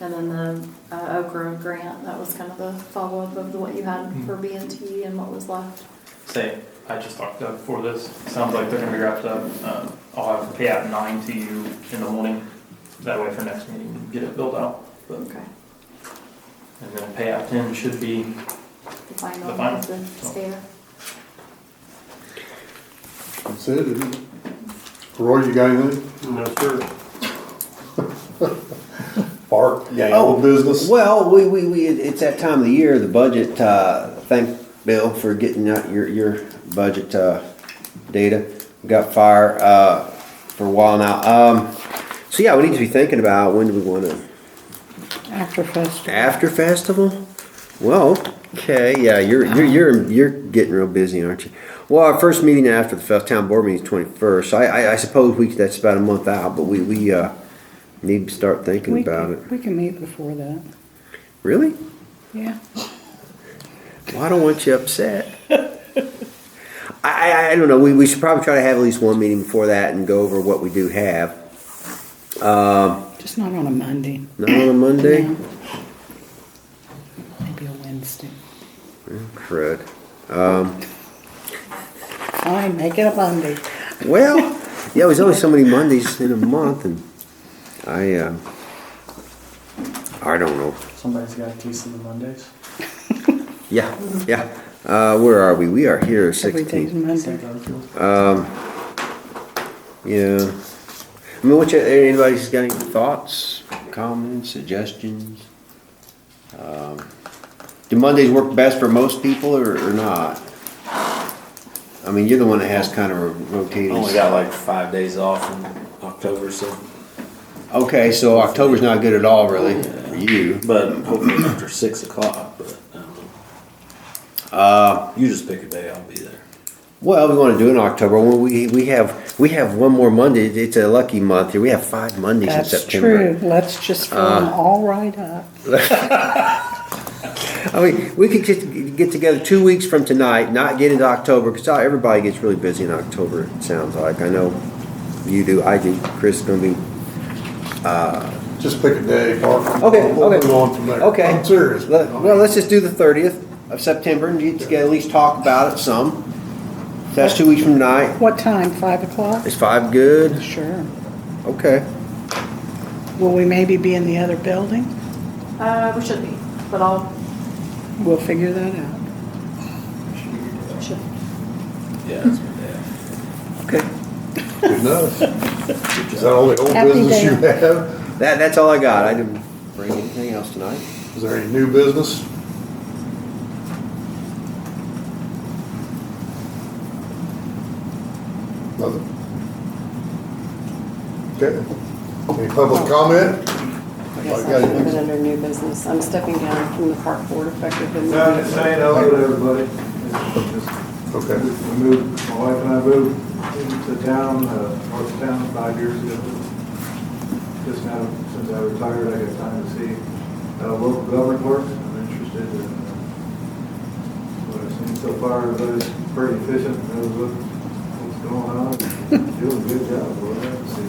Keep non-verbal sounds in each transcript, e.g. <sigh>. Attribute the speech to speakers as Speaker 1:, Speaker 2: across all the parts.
Speaker 1: And then the uh, Oak Grove grant, that was kind of the follow-up of what you had
Speaker 2: Hmm.
Speaker 1: for B and T and what was left.
Speaker 2: Say, I just talked to Doug before this, sounds like they're gonna be wrapped up, um, I'll have payout nine to you in the morning. That way for next meeting, get it built out,
Speaker 1: Okay.
Speaker 2: and then payout ten should be,
Speaker 1: The final
Speaker 2: The final. Oh.
Speaker 1: of the stair.
Speaker 3: That's it, isn't it? Roy, you got anything?
Speaker 4: No, sir.
Speaker 3: Bark, yeah,
Speaker 5: Oh.
Speaker 3: old business?
Speaker 5: Well, we, we, we, it- it's that time of the year, the budget, uh, thank Bill for getting out your, your budget, uh, data. We Got fire, uh, for a while now, um, so yeah, we need to be thinking about when do we wanna,
Speaker 6: After festival.
Speaker 5: after festival? Well, okay, yeah, you're, you're, you're, you're getting real busy, aren't you? Well, our first meeting after the fest, town board meeting is twenty-first, I, I, I suppose we, that's about a month out, but we, we, uh, need to start thinking
Speaker 6: We
Speaker 5: about
Speaker 6: can-
Speaker 5: it.
Speaker 6: We can meet before that,
Speaker 5: Really?
Speaker 6: yeah.
Speaker 5: Well, I don't want you upset. <laughs> I, I, I don't know. We, we should probably try to have at least one meeting before that and go over what we do have. Um,
Speaker 6: Just not on a Monday.
Speaker 5: not on a Monday?
Speaker 6: No. Maybe a Wednesday.
Speaker 5: Crud.
Speaker 6: Fine, make it a Monday.
Speaker 5: Well, yeah, there's only so many Mondays in a month, and I, uh, I don't know.
Speaker 4: Somebody's got a taste of the Mondays.
Speaker 5: Yeah, yeah. Uh, where are we? We are here
Speaker 6: Every day's
Speaker 5: 16.
Speaker 6: Monday.
Speaker 4: St. Garfield.
Speaker 5: Yeah. I mean, what you, anybody's got any thoughts, comments, suggestions? Um, Do Mondays work best for most people or, or not? I mean, you're the one that has kind of a rotating.
Speaker 7: Only got like five days off in October, so,
Speaker 5: Okay, so October's not good at all, really, for you.
Speaker 7: but hopefully after six o'clock, but, I don't know.
Speaker 5: Uh,
Speaker 7: You just pick a day, I'll be there.
Speaker 5: well, we wanna do it in October, Well, we, we have, we have one more Monday, it's a lucky month here, we have five Mondays in
Speaker 6: That's
Speaker 5: September. Ah.
Speaker 6: true, let's just fill them all right up.
Speaker 5: I mean, we could just get together two weeks from tonight, not get into October, because everybody gets really busy in October, it sounds like. I know you do, I do, Chris is gonna be,
Speaker 3: Just pick a day, Bark.
Speaker 5: Okay,
Speaker 3: We'll
Speaker 5: okay.
Speaker 3: move on from there.
Speaker 5: Okay.
Speaker 3: I'm serious.
Speaker 5: let- well, let's just do the thirtieth of September and get together, at least talk about it some. That's two weeks from tonight.
Speaker 6: What time, five o'clock?
Speaker 5: Is five good?
Speaker 6: Sure.
Speaker 5: Okay.
Speaker 6: Will we maybe be in the other building?
Speaker 1: Uh, we should be, but I'll,
Speaker 6: We'll figure that out.
Speaker 1: should,
Speaker 7: Yeah, that's my day. off.
Speaker 5: Okay.
Speaker 3: Good enough. Is that all the old
Speaker 6: Happy
Speaker 3: business you
Speaker 6: day.
Speaker 3: have?
Speaker 5: That, that's all I got. I didn't bring anything else tonight.
Speaker 3: Is there any new business? Nothing? Okay. Any
Speaker 5: Oh.
Speaker 3: public comment?
Speaker 8: Yes,
Speaker 3: Oh, you got
Speaker 8: I
Speaker 3: it.
Speaker 8: put it under new business. I'm stepping down from the park board effective
Speaker 9: No, just
Speaker 8: immediately.
Speaker 9: saying hello to everybody. It's just-
Speaker 3: Okay.
Speaker 9: We moved, my wife and I moved into town, uh, north town five years ago. Just now, since I retired, I got time to see how local government works. I'm interested in uh, what I've seen so far. Everybody's pretty efficient, knows what, what's going on, doing a good job. boy.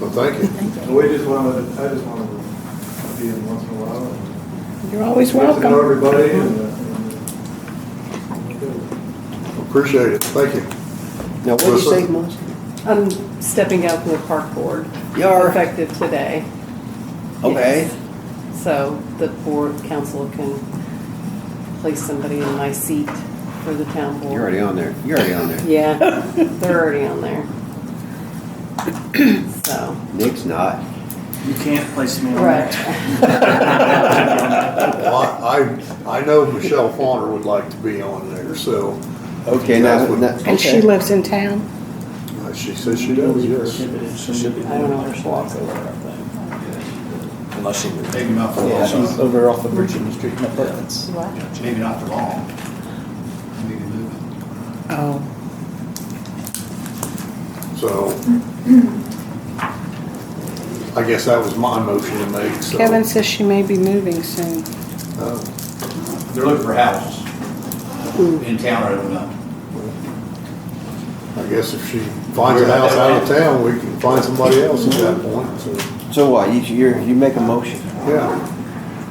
Speaker 3: Well, thank you.
Speaker 9: So we just wanted, I just wanted to be in once in a while. and
Speaker 6: You're always
Speaker 9: Get to know
Speaker 6: welcome.
Speaker 9: everybody and, uh, and, uh,
Speaker 3: Appreciate it. Thank you.
Speaker 5: Now, what do you say,
Speaker 3: Melissa?
Speaker 5: Mons?
Speaker 8: I'm stepping down from the park board
Speaker 5: You are?
Speaker 8: effective today.
Speaker 5: Okay.
Speaker 8: Yes. So the board council can place somebody in my seat for the town board.
Speaker 5: You're already on there. You're already on there.
Speaker 8: Yeah, they're already on there. So,
Speaker 5: Nick's not.
Speaker 2: you can't place me on that.
Speaker 8: right.
Speaker 3: Well, I, I I know Michelle Fawner would like to be on there, so
Speaker 5: Okay, now, now-
Speaker 6: And she
Speaker 5: okay.
Speaker 6: lives in town?
Speaker 3: uh, she says she does, yes.
Speaker 7: She should be.
Speaker 8: I don't know where she
Speaker 7: Block
Speaker 8: lives.
Speaker 7: over, I think. Unless she.
Speaker 10: Maybe not for
Speaker 7: Yeah,
Speaker 10: long.
Speaker 7: she's
Speaker 10: over off of Virginia Street in Apartments.
Speaker 8: What?
Speaker 10: Maybe not for long. Maybe moving.
Speaker 6: Oh,
Speaker 3: So I guess that was my motion to make, so.
Speaker 6: Kevin says she may be moving soon.
Speaker 3: uh,
Speaker 10: They're looking for houses in town right now.
Speaker 3: I guess if she finds a house out of town, we can find somebody else at that point, so,
Speaker 5: So what, you, you're, you make a motion?
Speaker 3: yeah.